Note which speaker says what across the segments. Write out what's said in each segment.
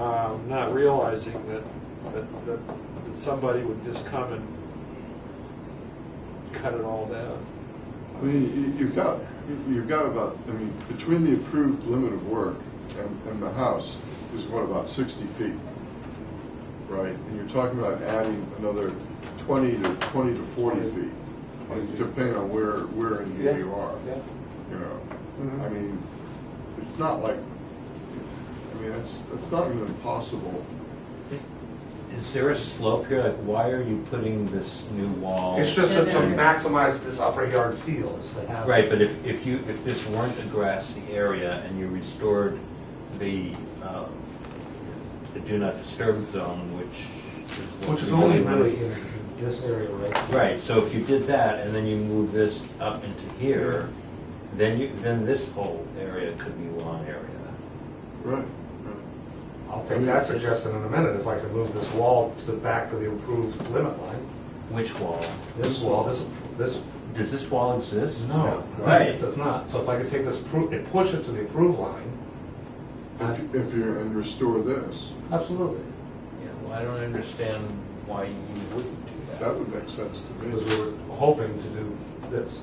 Speaker 1: um, not realizing that, that, that that somebody would just come and cut it all down.
Speaker 2: I mean, you- you've got, you've got about, I mean, between the approved limit of work and, and the house is what, about sixty feet? Right, and you're talking about adding another twenty to, twenty to forty feet, depending on where, where in here you are.
Speaker 3: Yeah.
Speaker 2: You know,
Speaker 3: Mhm.
Speaker 2: I mean, it's not like, I mean, it's, it's not even impossible.
Speaker 4: Is there a slope here? Like, why are you putting this new wall?
Speaker 3: It's just to to maximize this upper yard feel is to have.
Speaker 4: Right, but if, if you, if this weren't a grassy area and you restored the, uh, the do not disturb zone, which is. what
Speaker 3: Which is
Speaker 4: we
Speaker 3: only
Speaker 4: want-
Speaker 3: really in in this area right here.
Speaker 4: Right, so if you did that and then you move this up into here, then you, then this whole area could be lawn area.
Speaker 2: Right.
Speaker 3: I'll take that suggestion in a minute, if I can move this wall to the back of the approved limit line.
Speaker 4: Which wall?
Speaker 3: This wall, this, this.
Speaker 4: Does this wall exist?
Speaker 3: Right,
Speaker 4: Right.
Speaker 3: it does not. So if I could take this, appro- and push it to the approved line,
Speaker 2: If, you- if you're, and restore this,
Speaker 3: absolutely.
Speaker 4: Yeah, well, I don't understand why you wouldn't do
Speaker 2: that would make sense to
Speaker 3: Because
Speaker 2: me.
Speaker 3: we were hoping to do this.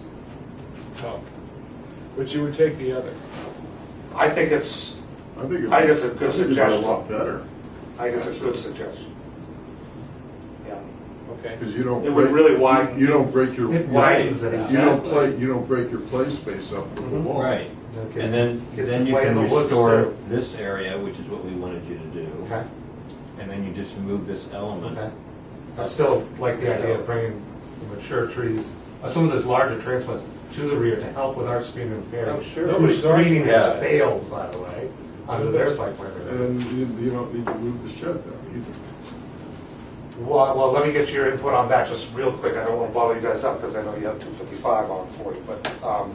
Speaker 1: Oh. But you would take the other.
Speaker 5: I think it's,
Speaker 2: I think it-
Speaker 5: I think it's a good
Speaker 2: I think it'd be a
Speaker 5: suggestion.
Speaker 2: lot better.
Speaker 5: I think it's a good suggestion. Yeah.
Speaker 1: Okay.
Speaker 2: Because you don't.
Speaker 5: It would
Speaker 2: break-
Speaker 5: really widen-
Speaker 2: You don't break your.
Speaker 3: It widens it out. Mm-hmm.
Speaker 2: You don't play, you don't break your play space up with the wall.
Speaker 4: Right,
Speaker 3: Okay.
Speaker 4: and then,
Speaker 3: Kids
Speaker 4: then
Speaker 3: can
Speaker 4: you
Speaker 3: play in
Speaker 4: can
Speaker 3: the woods,
Speaker 4: restore
Speaker 3: too.
Speaker 4: this area, which is what we wanted you to do,
Speaker 3: Okay,
Speaker 4: and then you just move this
Speaker 3: okay.
Speaker 4: element.
Speaker 3: I still like the idea of bringing the mature trees, uh, some of those larger transplants to the rear to help with our screen and pairing.
Speaker 1: Oh, sure.
Speaker 3: Whose screening
Speaker 4: Yeah.
Speaker 3: has failed, by the way, under their site plan review.
Speaker 2: And you, you don't need to move the shed down
Speaker 5: Well, well, let me get your input on that just real quick. I don't want to bother you guys up because I know you have 255 on 40, but um,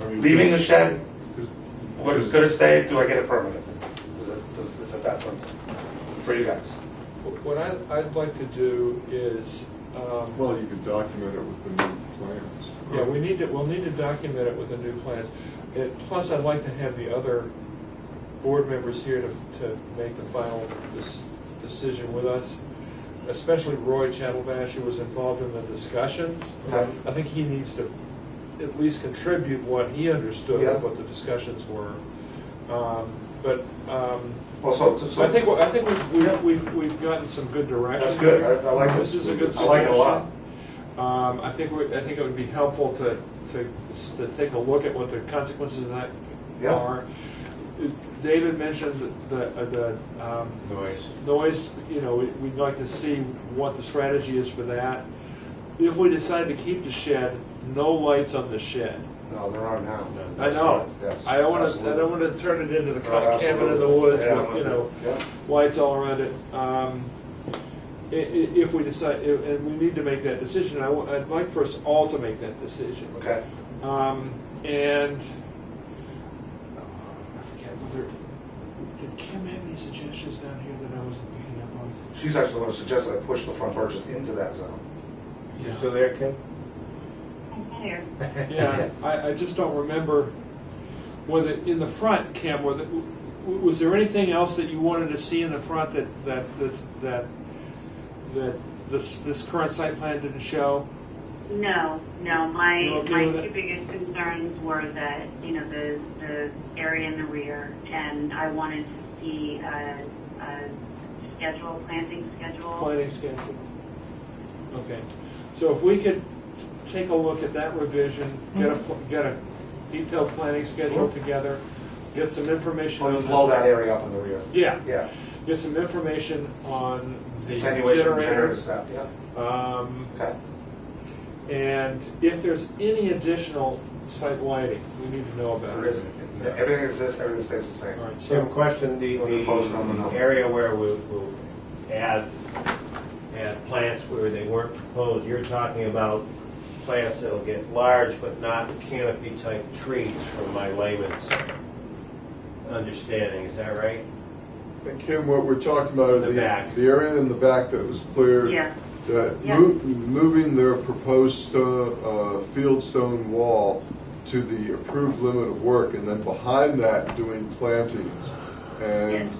Speaker 2: either. I mean,
Speaker 5: leaving the
Speaker 2: because-
Speaker 5: shed,
Speaker 2: because-
Speaker 5: what is going to stay, do I get it permanent? Is it- does- Is it that simple for you guys?
Speaker 1: What I, I'd like to do is, um,
Speaker 2: Well, you could document it with the new plans.
Speaker 1: Yeah, we need to, we'll need to document it with the new plans. And plus, I'd like to have the other board members here to, to make the final des- decision with us, especially Roy Chattelbash, who was involved in the discussions.
Speaker 3: Yeah.
Speaker 1: I think he needs to at least contribute what he understood
Speaker 3: Yeah.
Speaker 1: of what the discussions were. Um, But, um,
Speaker 5: Well, so, so.
Speaker 1: I think, I think we've- we've, we've, we've gotten some good direction.
Speaker 5: That's good. I- I like
Speaker 1: This
Speaker 5: this.
Speaker 1: is a good
Speaker 5: I like it a lot.
Speaker 1: suggestion. Um, I think, we- I think it would be helpful to, to, to take a look at what the consequences of that
Speaker 5: Yeah.
Speaker 1: are. David mentioned the, uh, the, um.
Speaker 3: Noise.
Speaker 1: Noise, you know, we- we'd like to see what the strategy is for that. If we decide to keep the shed, no lights on the shed.
Speaker 5: No, they're on now.
Speaker 1: I know,
Speaker 5: Yes,
Speaker 1: I don't wanna, I
Speaker 5: absolutely.
Speaker 1: don't wanna turn it into the
Speaker 5: Oh, absolutely.
Speaker 1: cabin in the woods,
Speaker 5: Yeah,
Speaker 1: with, you know,
Speaker 5: yeah.
Speaker 1: lights all around it. Um, i- i- If we decide, i- and we need to make that decision, I, wa- I'd like for us all to make that decision.
Speaker 5: Okay.
Speaker 1: Um, And, uh, I forget whether, did Kim have any suggestions down here that I wasn't picking up on?
Speaker 5: She's actually going to suggest that I push the front porches into that zone.
Speaker 1: Yeah.
Speaker 3: there, Kim?
Speaker 6: I'm tired.
Speaker 1: Yeah, I, I just don't remember whether, in the front, Kim, whether, w- w- was there anything else that you wanted to see in the front that, that, that's- that, that this, this current site plan didn't show?
Speaker 6: No, no,
Speaker 1: You
Speaker 6: my,
Speaker 1: okay
Speaker 6: my
Speaker 1: with it?
Speaker 6: two biggest concerns were that, you know, the, the area in the rear, and I wanted to see a, a schedule, planting schedule.
Speaker 1: Planning schedule. Okay, so if we could take a look at that revision, get a, pl- get a detailed planning schedule
Speaker 5: Sure.
Speaker 1: together, get some information
Speaker 5: Blow
Speaker 1: on. the-
Speaker 5: blow that area up in the rear.
Speaker 1: Yeah,
Speaker 5: Yeah.
Speaker 1: get some information on the
Speaker 5: Attenuation generator
Speaker 1: generators.
Speaker 5: stuff, yeah.
Speaker 1: Um,
Speaker 5: Okay.
Speaker 1: And if there's any additional site lighting, we need to know about
Speaker 5: There
Speaker 1: it.
Speaker 5: isn't. Everything exists, everything stays the same.
Speaker 1: All right,
Speaker 7: Same
Speaker 1: so,
Speaker 7: question, the,
Speaker 5: On the post, on the
Speaker 7: the
Speaker 5: number.
Speaker 7: area where we, we'll add, add plants where they weren't proposed, you're talking about plants that'll get large but not canopy-type trees, from my layman's understanding, is that right?
Speaker 2: And Kim, what we're talking about
Speaker 7: The
Speaker 2: are
Speaker 7: back.
Speaker 2: the, the area in the back that was cleared.
Speaker 6: Yeah.
Speaker 2: That
Speaker 6: Yeah.
Speaker 2: mo- moving their proposed stone, uh, field stone wall to the approved limit of work and then behind that doing plantings.
Speaker 6: Yes.
Speaker 2: And